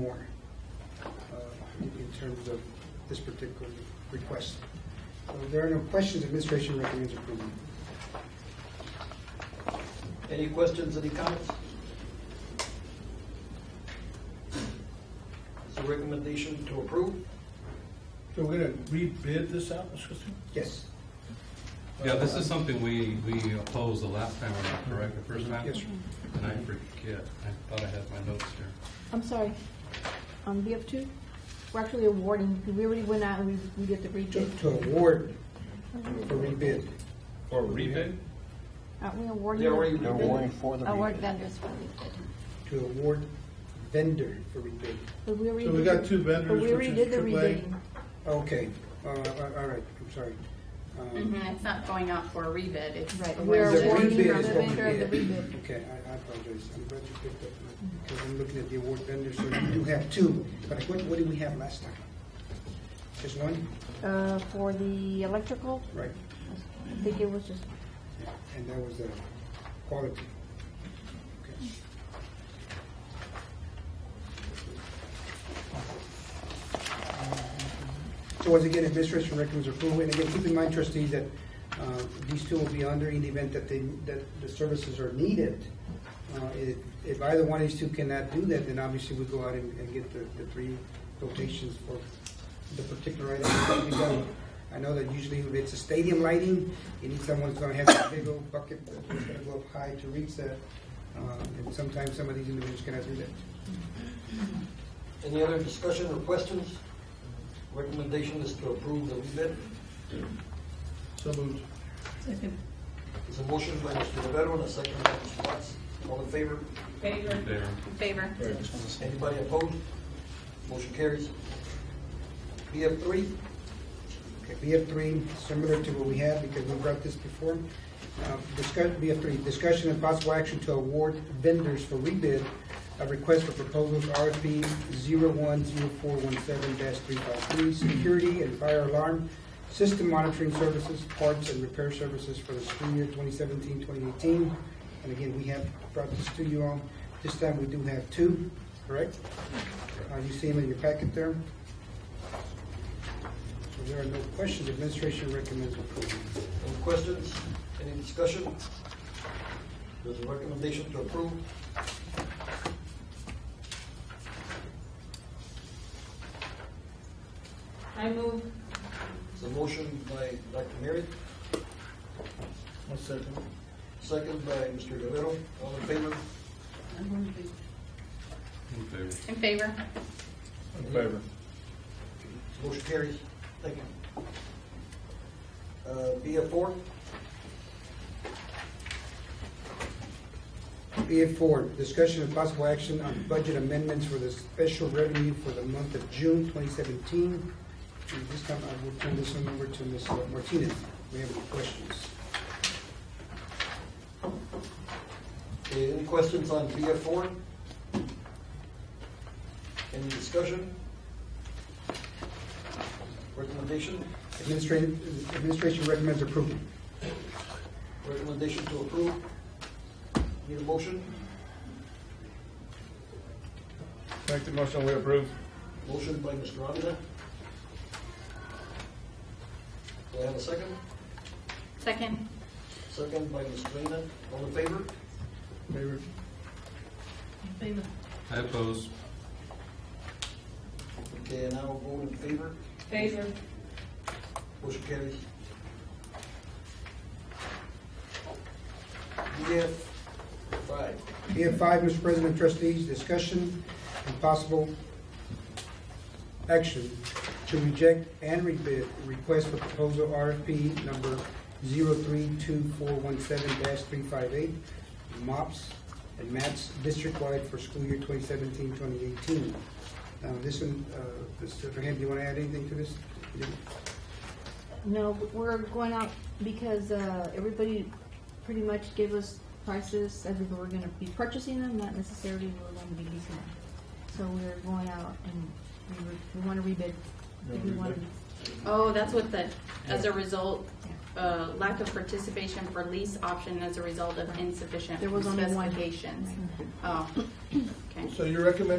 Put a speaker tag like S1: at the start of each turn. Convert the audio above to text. S1: more uh, in terms of this particular request. So if There are no questions, administration recommends approval.
S2: Any questions, any comments? It's a recommendation to approve?
S3: So we're gonna rebid this out, Mr. Christie?
S1: Yes,
S4: Yeah, this is something we, we opposed the last time around, correct, the first time?
S1: Yes, sir.
S4: And I forget, I thought I had my notes here.
S5: I'm sorry, on BF2, we're actually awarding, we already went out and we, we did the
S1: to
S5: rebid.
S1: to award for rebid.
S4: Or rebid?
S5: Aren't we awarding?
S2: They already
S5: them?
S6: They're warning for the
S7: Award
S6: rebid.
S7: vendors for rebid.
S1: to award vendor for rebid.
S5: But we already
S3: So we
S5: did-
S3: got two vendors,
S5: but we already
S3: which
S5: did
S3: is
S5: the
S3: AAA.
S5: rebidding.
S1: Okay, uh, all all right, I'm sorry. Um,
S8: Mhm, It's not going out for a rebid, it's.
S5: Right,
S8: a
S5: we are
S1: The
S8: waiver.
S5: awarding the
S1: rebid is what we
S5: vendor of the
S1: did.
S5: rebid.
S1: Okay, I I apologize, I'm glad you picked up, on it, because I'm looking at the award vendor, so we do have two, but what, what did we have last time? Just one?
S5: Uh, for the electrical,
S1: Right,
S5: I think it was just,
S1: and that was the quality. Okay. So once again, administration recommends approval, and again, keep in mind trustees that uh, these two will be under in the event that they, that the services are needed. Uh, If if either one of these two cannot do that, then obviously we go out and and get the, the three quotations for the particular item that needs to be done. I know that usually if it's a stadium lighting, you need someone who's gonna have a big old bucket that's gonna go up high to reach that. Uh, And sometimes some of these individuals cannot do that.
S2: Any other discussion or questions? Recommendation is to approve the rebid.
S3: So moved.
S2: It's a motion by Mr. Rivera and a second by Mr. Watts. All in favor?
S8: Favor,
S4: There.
S8: favor.
S2: Anybody opposed? Motion carries. BF three,
S1: Okay, BF three, similar to what we had, because we brought this before. Uh, Discuss, BF three, discussion and possible action to award vendors for rebid of request for proposals RFP zero one zero four one seven three five three, security and fire alarm, system monitoring services, parts and repair services for the school year 2017-2018. And again, we have brought this to you on, this time we do have two, correct? Uh, you see them in your packet there? So there are no questions, administration recommends approval.
S2: any questions? Any discussion? There's a recommendation to approve.
S8: I move.
S2: It's a motion by Dr. Mary,
S3: One second.
S2: second by Mr. Rivera. All in favor?
S4: In favor.
S8: In favor.
S3: In favor.
S2: Motion carries. Thank you. Uh, BF four,
S1: BF four, discussion of possible action on budget amendments for the special revenue for the month of June 2017. And this time, I will turn this one over to Ms. Martinez. We have any questions?
S2: Okay, any questions on BF four? Any discussion? Recommendation,
S1: Administration, administration recommends approval.
S2: recommendation to approve. Need a motion?
S3: Make the motion, we approve.
S2: Motion by Mr. Avila. Do I have a second?
S8: Second.
S2: Second by Ms. Reyna. All in favor?
S3: Favor.
S4: I oppose.
S2: Okay, and I will vote in favor.
S8: Favor.
S2: Motion carries. BF E five.
S1: BF five, Mr. President, trustees, discussion and possible action to reject and rebid request for proposal RFP number 032417-358, MOPS and MAPS district-wide for school year 2017-2018. Now, this one, uh, Mr. Hand, do you want to add anything to this?
S5: no, we're going out because, uh, everybody pretty much gave us prices, as if we were gonna be purchasing them, not necessarily we were gonna be leasing them. So we're going out and we, were- we wanna rebid, if we wanna,
S8: Oh, that's what the, as a result, uh, lack of participation for lease option as a result of insufficient
S5: There was only one.
S8: specifications. Oh, okay.
S3: So you're recommending